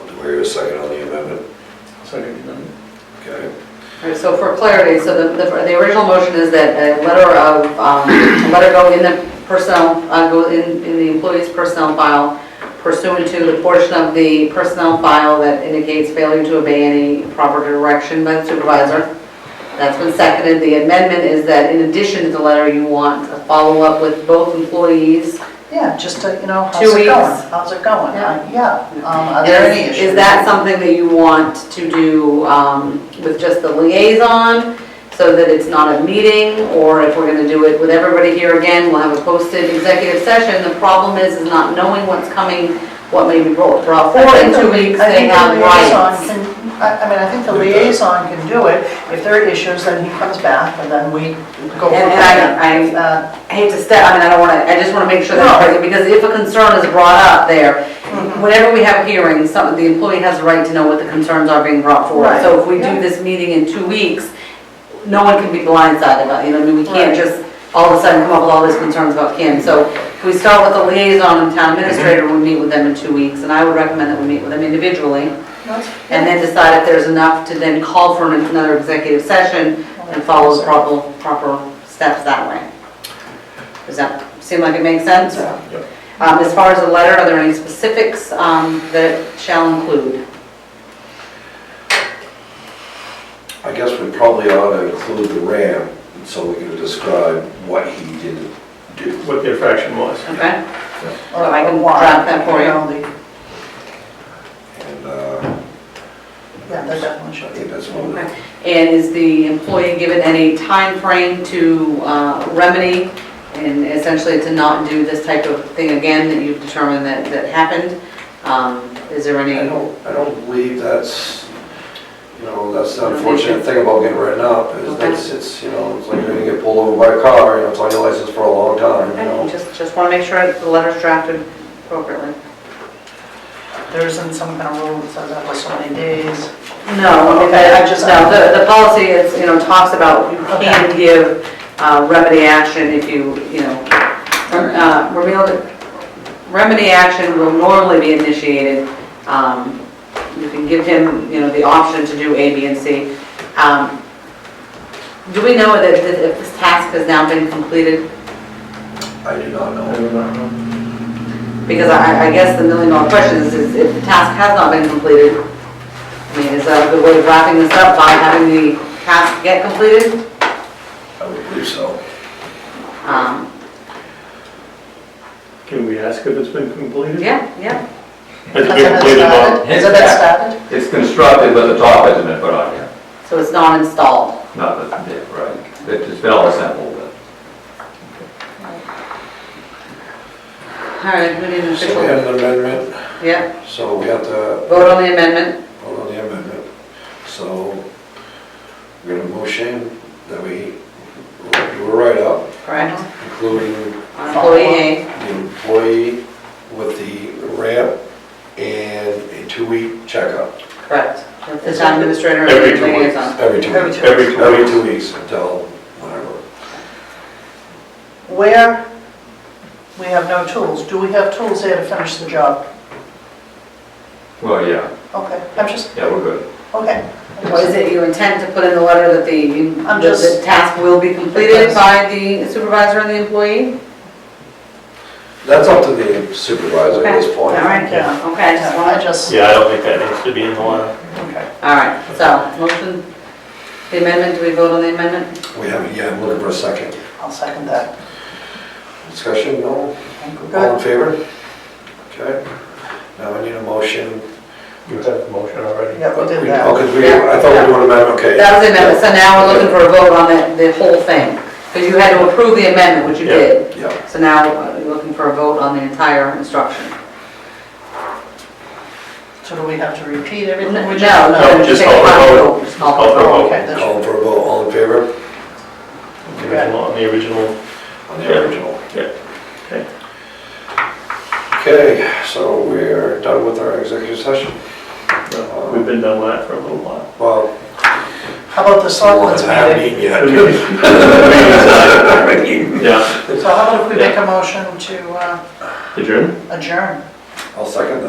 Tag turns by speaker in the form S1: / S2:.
S1: We have a second on the amendment,
S2: Second amendment.
S1: okay?
S3: All right, so for clarity, so the, the the original motion is that a letter of, um, a letter go in the personnel, uh, go in, in the employee's personnel file pursuant to the portion of the personnel file that indicates failure to obey any proper direction by the supervisor. That's been seconded. The amendment is that in addition to the letter, you want a follow-up with both employees.
S4: Yeah, just to, you know, how's
S3: Two
S4: it
S3: weeks.
S4: going? How's it going?
S3: Yeah.
S4: Uh, Yeah, um, are there any
S3: Is-
S4: issues?
S3: Is that something that you want to do um, with just the liaison, so that it's not a meeting? Or if we're gonna do it with everybody here again, we'll have a posted executive session. The problem is, is not knowing what's coming, what may be brought brought
S4: I
S3: forward in
S4: think the-
S3: two weeks,
S4: I
S3: they
S4: think the
S3: have
S4: liaison
S3: rights.
S4: can- I, I mean, I think the liaison can do it. If there are issues, then he comes back and then we go from
S3: And- and I-
S4: there.
S3: I-
S4: Uh,
S3: I hate to step, I mean, I don't wanna, I just wanna make sure that,
S4: No. Mm-hmm.
S3: because if a concern is brought up there, whenever we have hearings, some, the employee has a right to know what the concerns are being brought forward.
S4: Right.
S3: So if we do
S4: Yeah.
S3: this meeting in two weeks, no one can be blindsided about, you know, I mean, we can't
S4: Right.
S3: just all of a sudden come up with all these concerns about Kim. So if we start with the liaison and town administrator, we meet with them in two weeks, and I would recommend that we meet with them individually,
S4: that's-
S3: and then decide if there's enough to then call for another executive session and follow the proper, proper steps that way. Does that seem like it makes sense?
S4: Yeah.
S1: Yep.
S3: Um, as far as the letter, are there any specifics, um, that shall include?
S1: I guess we probably ought to include the RAM, so we can describe what he didn't do.
S2: What the infraction was.
S3: Okay?
S4: or-
S3: I can
S4: or why,
S3: draft that for you.
S4: know, the-
S1: And uh,
S4: Yeah, that definitely
S1: I
S4: should
S1: think
S4: be.
S1: that's one of the,
S3: And is the employee given any time frame to uh, remedy and essentially to not do this type of thing again that you've determined that, that happened? Um, Is there
S1: I
S3: any,
S1: don't, I don't believe that's, you know, that's the unfortunate thing about getting written up, is that's, it's, you know, it's like you're gonna get pulled over by a car, you know, it's on your license for a long time, you know?
S3: just, just want to make sure the letter's drafted appropriately.
S4: There isn't some kind of rule that says that was so many days.
S3: No, I mean, I I just, no, the, the policy is, you know, talks about you can give uh, remedy action if you, you know, uh, remedial- remedy action will normally be initiated. Um, You can give him, you know, the option to do A, B, and C. Um, Do we know that that if this task has now been completed?
S1: I do not know.
S3: Because I, I guess the million dollar question is, is if the task has not been completed, I mean, is that a good way of wrapping this up by having the task get completed?
S1: I would believe so.
S3: Um,
S2: Can we ask if it's been completed?
S3: Yeah, yeah.
S2: Has it been
S4: Hasn't it
S2: completed, Bob?
S4: started? Hasn't it started?
S5: It's constructed, but the top hasn't been put on yet.
S3: So it's not installed.
S5: Not that, yeah, right. It's been all assembled, but.
S3: All right, we need an
S1: So we had
S3: official,
S1: an amendment,
S3: yeah.
S1: so we have to
S3: Vote on the amendment.
S1: vote on the amendment. So we're gonna motion that we do a write-up,
S3: Correct.
S1: including
S3: On Employee A.
S1: the employee with the ramp and a two-week checkup.
S3: Correct. That's The town administrator. and
S2: Every two
S3: liaison.
S2: weeks.
S1: Every two
S4: Every
S1: weeks.
S4: two
S2: Every two
S1: Every
S2: weeks.
S1: two weeks until whatever.
S4: Where we have no tools, do we have tools there to finish the job?
S5: Well, yeah,
S4: Okay, I'm just,
S5: yeah, we're good.
S4: okay.
S3: Well, is it your intent to put in the letter that the,
S4: I'm
S3: that the
S4: just-
S3: task will be completed by the supervisor and the employee?
S1: That's up to the supervisor at this point.
S3: All right,
S4: Yeah.
S3: okay, I just wanted
S4: I just,
S2: Yeah, I don't think that needs to be in the law.
S4: okay.
S3: All right, so, motion, the amendment, do we vote on the amendment?
S1: We haven't yet, I'm looking for a second.
S4: I'll second that.
S1: Discussion, no? All in
S4: Good.
S1: favor? Okay. Now I need a motion.
S2: You have the motion already.
S4: Yeah, we did
S1: Oh,
S4: that.
S1: 'cause we, I thought we were doing amendment, okay.
S3: That was the amendment, so now we're looking for a vote on the, the whole thing, because you had to approve the amendment, which you
S2: Yeah.
S3: did.
S1: Yeah,
S3: So now uh, we're looking for a vote on the entire instruction.
S4: So do we have to repeat
S3: No,
S4: everything?
S3: no,
S4: We
S2: No, just
S3: take
S2: call for
S3: a
S2: a
S3: final
S2: vote.
S3: vote. Just
S2: Call for a vote.
S4: Okay, that's,
S1: call for a vote, all in favor?
S2: The original- On the original.
S1: On the original.
S2: Yeah.
S1: Okay, so we're done with our executive session.
S2: No, We've been done with that for a little while.
S1: Well,
S4: how about the selectmen's
S1: I haven't
S4: meeting?
S1: eaten yet.
S2: Yeah,
S4: So how about if we make a motion to uh,
S2: adjourn?
S4: adjourn?
S1: I'll second that.